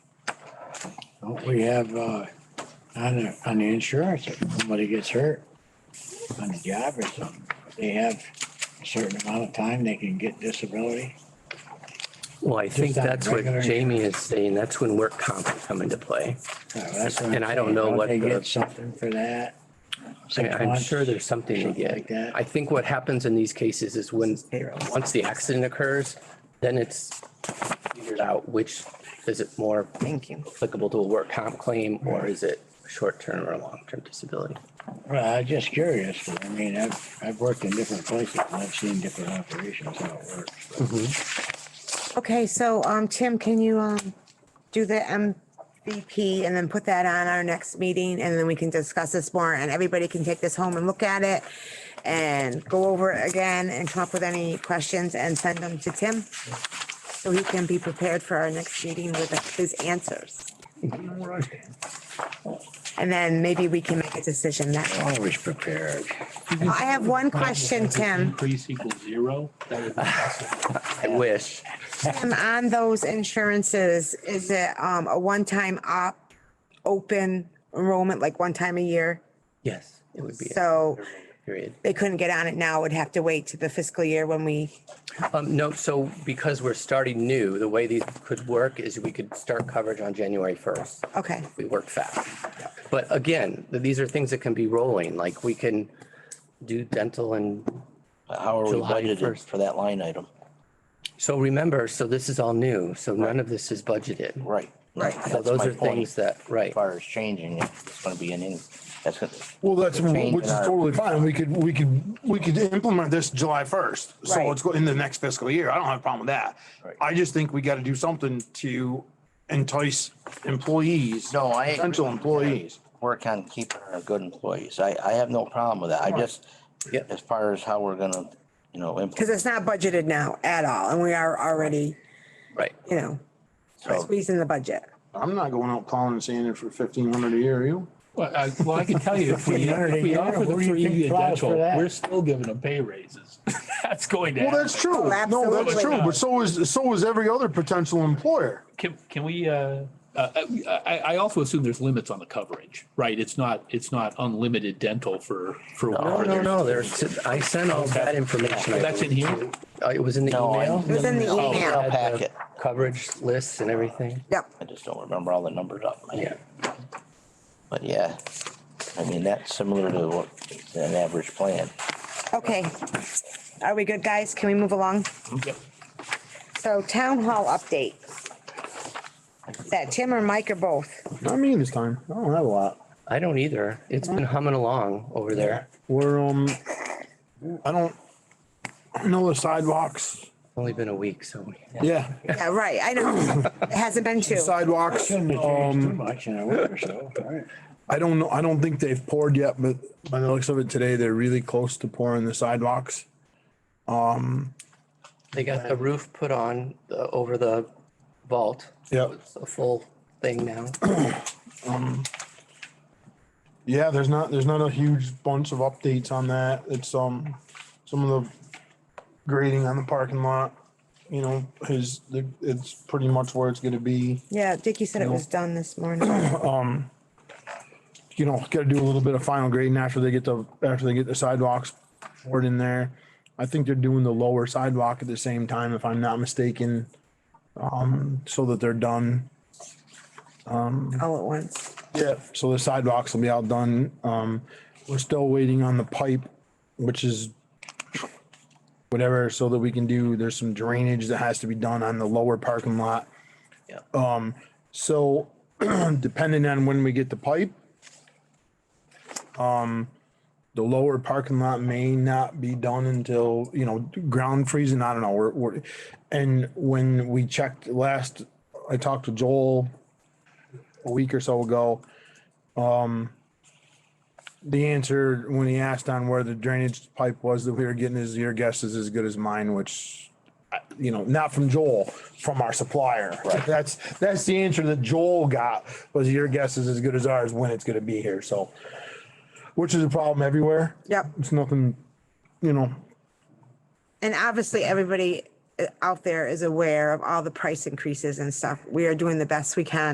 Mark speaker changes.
Speaker 1: Don't we have, uh, on the, on the insurance, if somebody gets hurt on the job or something, they have a certain amount of time they can get disability?
Speaker 2: Well, I think
Speaker 1: Just on
Speaker 2: that's what
Speaker 1: regular-
Speaker 2: Jamie is saying. That's when work comp would come into play.
Speaker 1: Uh, that's what I'm
Speaker 2: And I don't
Speaker 1: saying.
Speaker 2: know what
Speaker 1: They
Speaker 2: the-
Speaker 1: get something for that?
Speaker 2: I-
Speaker 1: Six
Speaker 2: I'm
Speaker 1: months?
Speaker 2: sure there's something to
Speaker 1: Something like
Speaker 2: get.
Speaker 1: that.
Speaker 2: I think what happens in these cases is when,
Speaker 3: payroll.
Speaker 2: once the accident occurs, then it's figured out which, is it more
Speaker 3: Thank you.
Speaker 2: applicable to a work comp claim or is it short-term or long-term disability?
Speaker 1: Well, I'm just curious, I mean, I've, I've worked in different places, and I've seen different operations, how it works. but-
Speaker 3: Okay, so, um, Tim, can you, um, do the MVP and then put that on our next meeting and then we can discuss this more and everybody can take this home and look at it and go over it again and come up with any questions and send them to Tim so he can be prepared for our next meeting with his answers. And then maybe we can make a decision that way.
Speaker 1: Always prepared.
Speaker 3: I have one question, Tim.
Speaker 4: Increase equals zero? That would be awesome.
Speaker 2: I wish.
Speaker 3: And on those insurances, is it um a one-time op, open enrollment, like one time a year?
Speaker 2: Yes, it would be. a
Speaker 3: So
Speaker 2: Period.
Speaker 3: they couldn't get on it now, would have to wait to the fiscal year when we,
Speaker 2: Um, no, so because we're starting new, the way these could work is we could start coverage on January first.
Speaker 3: okay,
Speaker 2: We work fast. But again, th- these are things that can be rolling, like we can do dental and,
Speaker 5: How are we
Speaker 2: July
Speaker 5: budgeted
Speaker 2: 1st.
Speaker 5: for that line item?
Speaker 2: so remember, so this is all new, so none of this is budgeted.
Speaker 5: Right.
Speaker 3: Right. So
Speaker 2: So
Speaker 5: That's
Speaker 2: those
Speaker 5: my
Speaker 2: are
Speaker 5: point.
Speaker 2: things that, right,
Speaker 5: As far as changing, it, it's gonna be an, in- that's gonna.
Speaker 6: Well, that's,
Speaker 5: Change
Speaker 6: which
Speaker 5: in
Speaker 6: is
Speaker 5: our-
Speaker 6: totally fine. We could, we could, we could implement this July first.
Speaker 3: Right.
Speaker 6: So it's go in the next fiscal year. I don't have a problem with that.
Speaker 5: Right.
Speaker 6: I just think we gotta do something to entice employees.
Speaker 5: No, I. agree
Speaker 6: Potential
Speaker 5: with that.
Speaker 6: employees.
Speaker 5: Work on keeping our good employees. I, I have no problem with that. I just,
Speaker 2: Yep.
Speaker 5: as far as how we're gonna, you know,
Speaker 3: because
Speaker 5: implement.
Speaker 3: it's not budgeted now at all, and we are already,
Speaker 2: right.
Speaker 3: you know,
Speaker 5: So
Speaker 3: squeezing the budget.
Speaker 6: I'm not going out plowing and sanding for fifteen hundred a year, are you?
Speaker 4: Well, I, well, I can tell you, if we, if we offer the
Speaker 1: Where do you
Speaker 4: free
Speaker 1: think plows for
Speaker 4: dental,
Speaker 1: that?
Speaker 4: we're still giving them pay raises. That's going to
Speaker 6: Well, that's
Speaker 4: happen.
Speaker 6: true. No, that's
Speaker 3: Oh, absolutely.
Speaker 6: true. But so is, so is every other potential employer.
Speaker 4: Can, can we, uh, uh, I, I I also assume there's limits on the coverage, right? It's not, it's not unlimited dental for, for.
Speaker 2: No,
Speaker 4: whatever
Speaker 2: no,
Speaker 4: there's-
Speaker 2: no, there's, I sent all that information. I
Speaker 4: That's in
Speaker 2: believe.
Speaker 4: here?
Speaker 2: Uh, It was in the
Speaker 5: No, I-
Speaker 2: email.
Speaker 3: It was in the
Speaker 2: Oh,
Speaker 3: email.
Speaker 2: had the
Speaker 5: Packet.
Speaker 2: Coverage lists and everything.
Speaker 3: Yep,
Speaker 5: I just don't remember all the numbers up. in my
Speaker 2: Yeah.
Speaker 5: head. But yeah, I mean, that's similar to what, to an average plan.
Speaker 3: okay. Are we good, guys? Can we move along?
Speaker 4: Yep.
Speaker 3: So town hall update. Is that Tim or Mike or both?
Speaker 6: Not me this time. I don't have a lot.
Speaker 2: I don't either. It's been humming along over there.
Speaker 6: We're, um, I don't, I know the sidewalks.
Speaker 2: Only been a week, so.
Speaker 6: Yeah,
Speaker 3: Yeah, right, I know. It hasn't been two.
Speaker 6: sidewalks.
Speaker 1: Shouldn't have changed too
Speaker 6: Um,
Speaker 1: much in a week or so, right?
Speaker 6: I don't know. I don't think they've poured yet, but by the looks of it today, they're really close to pouring the sidewalks.
Speaker 2: They got the roof put on uh, over the vault.
Speaker 6: Yep.
Speaker 2: It's a full thing now.
Speaker 6: Yeah, there's not, there's not a huge bunch of updates on that. It's, um, some of the grading on the parking lot, you know, is, it's pretty much where it's gonna be.
Speaker 3: Yeah, Dickie said it was done this morning.
Speaker 6: you know, gotta do a little bit of final grading after they get the, after they get the sidewalks poured in there. I think they're doing the lower sidewalk at the same time, if I'm not mistaken. Um, so that they're done.
Speaker 3: all at once.
Speaker 6: Yeah. So the sidewalks will be all done. Um, we're still waiting on the pipe, which is whatever, so that we can do, there's some drainage that has to be done on the lower parking lot.
Speaker 2: Yeah.
Speaker 6: Um, so depending on when we get the pipe, um, the lower parking lot may not be done until, you know, ground freezing. I don't know. We're, we're, and when we checked last, I talked to Joel a week or so ago. Um, the answer when he asked on where the drainage pipe was that we were getting is your guess is as good as mine, which, I- you know, not from Joel, from our supplier. That's, that's the answer that Joel got was your guess is as good as ours when it's gonna be here, so. Which is a problem everywhere.
Speaker 3: Yep.
Speaker 6: It's nothing, you know,
Speaker 3: And obviously, everybody uh, out there is aware of all the price increases and stuff. We are doing the best we can